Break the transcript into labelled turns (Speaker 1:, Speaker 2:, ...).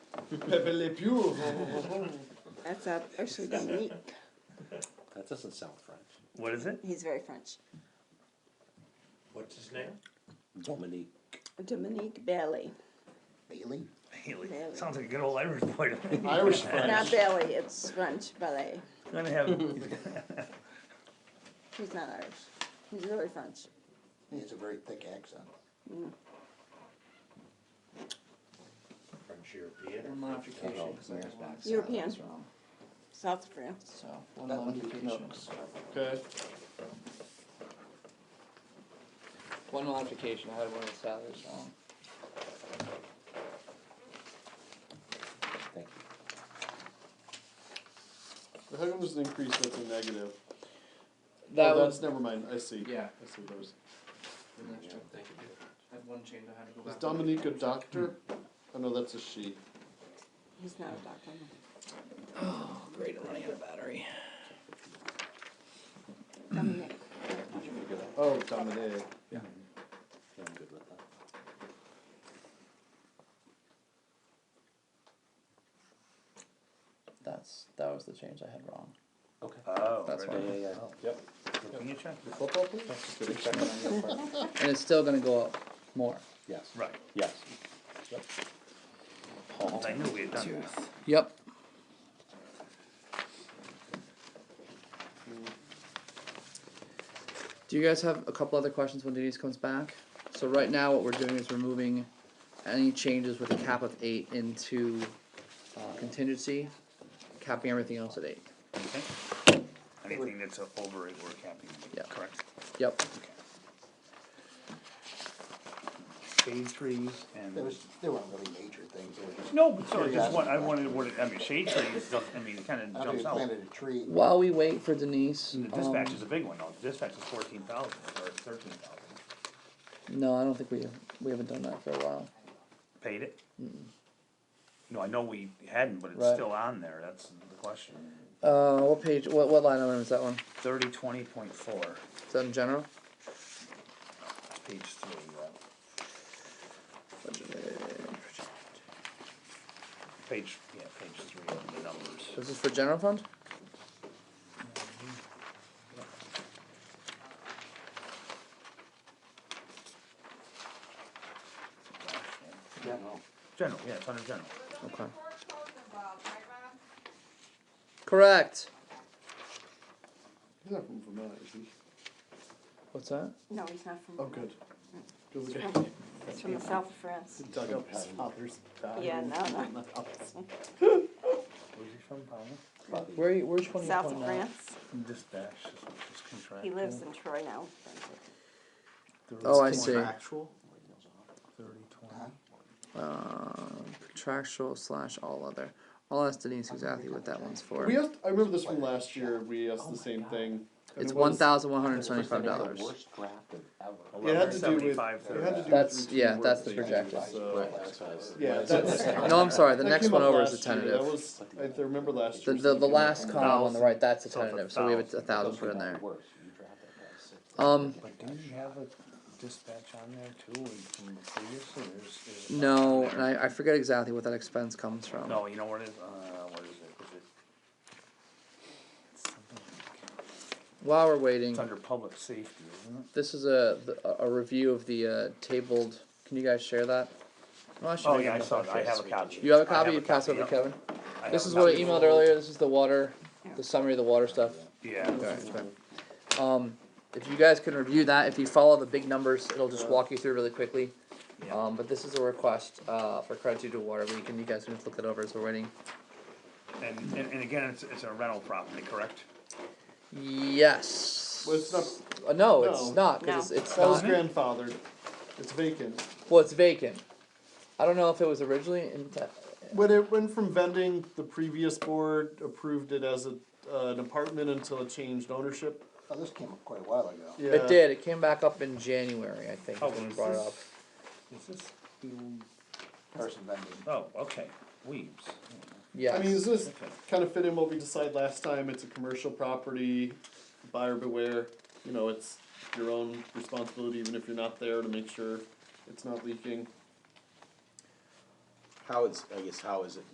Speaker 1: Pepe Le Pew.
Speaker 2: That's uh, actually Dominique.
Speaker 3: That doesn't sound French.
Speaker 4: What is it?
Speaker 2: He's very French.
Speaker 5: What's his name?
Speaker 3: Dominique.
Speaker 2: Dominique Bailey.
Speaker 3: Bailey?
Speaker 4: Haley.
Speaker 2: Really?
Speaker 4: Sounds like a good old Irish boy to me.
Speaker 1: Irish
Speaker 2: Not
Speaker 1: French.
Speaker 2: Bailey, it's French ballet.
Speaker 4: He's gonna have, he's
Speaker 2: He's not Irish. He's really French.
Speaker 3: He has a very thick accent.
Speaker 5: French European.
Speaker 6: Modification, because I got one side
Speaker 2: European.
Speaker 6: that's wrong.
Speaker 2: South of France.
Speaker 6: So, one
Speaker 3: That would be
Speaker 6: modification.
Speaker 3: Canucks.
Speaker 1: Okay.
Speaker 6: One modification, I had one of the salaries wrong.
Speaker 3: Thank you.
Speaker 1: How come there's an increase that's a negative?
Speaker 6: That
Speaker 1: oh,
Speaker 6: was,
Speaker 1: that's never mind. I see.
Speaker 6: yeah.
Speaker 1: I see those.
Speaker 6: I
Speaker 5: Thank you.
Speaker 6: had one change I had to go
Speaker 1: Is
Speaker 6: back.
Speaker 1: Dominique a doctor? Oh no, that's a she.
Speaker 2: He's not a doctor.
Speaker 6: Oh, great, I'm running out of battery.
Speaker 2: Dominique.
Speaker 1: Oh, Dominique.
Speaker 3: Yeah, I'm good with that.
Speaker 6: That's, that was the change I had wrong.
Speaker 3: Okay.
Speaker 4: oh,
Speaker 6: That's
Speaker 4: right.
Speaker 3: Yeah, yeah, yeah. Yep.
Speaker 4: Can you check?
Speaker 3: Football, please? Checking on your apartment.
Speaker 6: And it's still gonna go up more.
Speaker 3: Yes.
Speaker 4: Right.
Speaker 3: Yes.
Speaker 4: I knew we had done that.
Speaker 6: Yep. Do you guys have a couple other questions when Denise comes back? So right now, what we're doing is we're moving any changes with a cap of eight into uh, contingency, capping everything else at eight.
Speaker 4: Okay. Anything that's a- over it, we're capping,
Speaker 6: Yeah.
Speaker 4: correct?
Speaker 6: Yep.
Speaker 4: Shade trees and.
Speaker 7: There was, there weren't really major things, there was just,
Speaker 4: No, but sorry, just
Speaker 7: Curiosity.
Speaker 4: what, I wanted, what, it- I mean, shade trees, don't- I mean, it kinda
Speaker 7: after you
Speaker 4: jumps out. And
Speaker 7: planted a tree,
Speaker 6: While we wait for Denise,
Speaker 4: the
Speaker 6: um,
Speaker 4: dispatch is a big one, though, The dispatch is fourteen thousand or thirteen thousand.
Speaker 6: no, I don't think we we haven't done that for a while.
Speaker 4: Paid it? No, I know we hadn't, but it's
Speaker 6: Right.
Speaker 4: still on there, that's the question.
Speaker 6: Uh, what page? What what line item is that one?
Speaker 4: Thirty twenty point four,
Speaker 6: Is that in general?
Speaker 4: page three, uh, right? Page, yeah, page three of the numbers.
Speaker 6: This is for general fund.
Speaker 4: General, yeah, it's under general.
Speaker 6: Okay. Correct.
Speaker 1: He's not from Vermont, is he?
Speaker 6: What's that?
Speaker 2: No, he's not from.
Speaker 1: Oh, good. Good look at
Speaker 2: French. He's from the south of France.
Speaker 1: dug up his father's body.
Speaker 2: Yeah, no, no.
Speaker 4: Where's he from, Palmer?
Speaker 6: Where are you, where's twenty
Speaker 2: South
Speaker 6: point
Speaker 2: of
Speaker 6: nine?
Speaker 2: France.
Speaker 4: Dispatch, just contract.
Speaker 2: He lives in Troy now.
Speaker 6: Oh, I see.
Speaker 4: Thirty twenty.
Speaker 6: Um, contractual slash all other. I'll ask Denise exactly what that one's for.
Speaker 1: We asked. I remember this from last year. We asked the same thing. and
Speaker 6: It's
Speaker 1: it was-
Speaker 6: one thousand one hundred seventy-five
Speaker 3: The
Speaker 6: dollars.
Speaker 3: worst drafted ever.
Speaker 1: It had to do with. It had
Speaker 4: Seventy-five
Speaker 1: to
Speaker 4: thirty.
Speaker 1: do with
Speaker 6: That's-
Speaker 1: routine
Speaker 6: yeah,
Speaker 1: work
Speaker 6: that's the
Speaker 1: things,
Speaker 6: projected.
Speaker 1: so-
Speaker 3: Yeah.
Speaker 1: Yeah, that's.
Speaker 6: No, I'm sorry, the
Speaker 1: that
Speaker 6: next
Speaker 1: came
Speaker 6: one
Speaker 1: up
Speaker 6: over is a
Speaker 1: last year. That
Speaker 6: tentative.
Speaker 1: was, I th- remember last
Speaker 6: The,
Speaker 1: year.
Speaker 6: the, the last column on the right, that's a
Speaker 4: So it's a
Speaker 6: tentative, so we have a
Speaker 4: thousand.
Speaker 6: a thousand put in there.
Speaker 3: Worse. You drafted by six.
Speaker 6: Um,
Speaker 4: But do you have a dispatch on there too, and from the previous, or there's, there's. a
Speaker 6: no,
Speaker 4: box on
Speaker 6: and
Speaker 4: there?
Speaker 6: I, I forget exactly what that expense comes from.
Speaker 4: No, you know what it is, uh, what is it, is it? It's something like-
Speaker 6: While we're waiting,
Speaker 4: It's under public safety, isn't it?
Speaker 6: this is a, the- a- a review of the, uh, tabled, can you guys share that? Well, should
Speaker 4: Oh,
Speaker 6: make
Speaker 4: yeah,
Speaker 6: it
Speaker 4: I
Speaker 6: up
Speaker 4: saw
Speaker 6: after
Speaker 4: that, I
Speaker 6: this.
Speaker 4: have a copy.
Speaker 6: You have a
Speaker 4: I
Speaker 6: copy, you pass it over to
Speaker 4: yep.
Speaker 6: Kevin?
Speaker 4: I have
Speaker 6: This
Speaker 4: a
Speaker 6: is what I
Speaker 4: copy.
Speaker 6: emailed earlier, this is the water, the summary of the water stuff.
Speaker 4: Yeah,
Speaker 6: Alright, okay. Um, if you guys can review that, if you follow the big numbers, it'll just walk you through really quickly.
Speaker 4: Yeah.
Speaker 6: Um, but this is a request, uh, for credit due to water leak, and you guys can just look it over as we're waiting.
Speaker 4: and, and, and again, it's, it's a rental property, correct?
Speaker 6: Yes.
Speaker 1: Well, it's not,
Speaker 6: Uh, no, it's
Speaker 1: No.
Speaker 6: not, cause
Speaker 2: No.
Speaker 6: it's, it's
Speaker 1: that was
Speaker 6: not,
Speaker 1: grandfathered. It's vacant.
Speaker 6: well, it's vacant. I don't know if it was originally in,
Speaker 1: When it went from vending, the previous board approved it as a, uh, an apartment until it changed ownership.
Speaker 7: oh, this came up quite a while ago.
Speaker 1: Yeah.
Speaker 6: It did. It came back up in January, I think,
Speaker 4: Oh,
Speaker 6: when we
Speaker 4: is
Speaker 6: brought it
Speaker 4: this-
Speaker 6: up.
Speaker 4: Is this, the-
Speaker 7: Person vending,
Speaker 4: oh, okay, Weems,
Speaker 6: Yes.
Speaker 1: I mean, does this kind of fit in what we decided last time? It's a commercial property, buyer beware. You know, it's your own responsibility, even if you're not there, to make sure it's not leaking.
Speaker 8: How is, I guess, how is it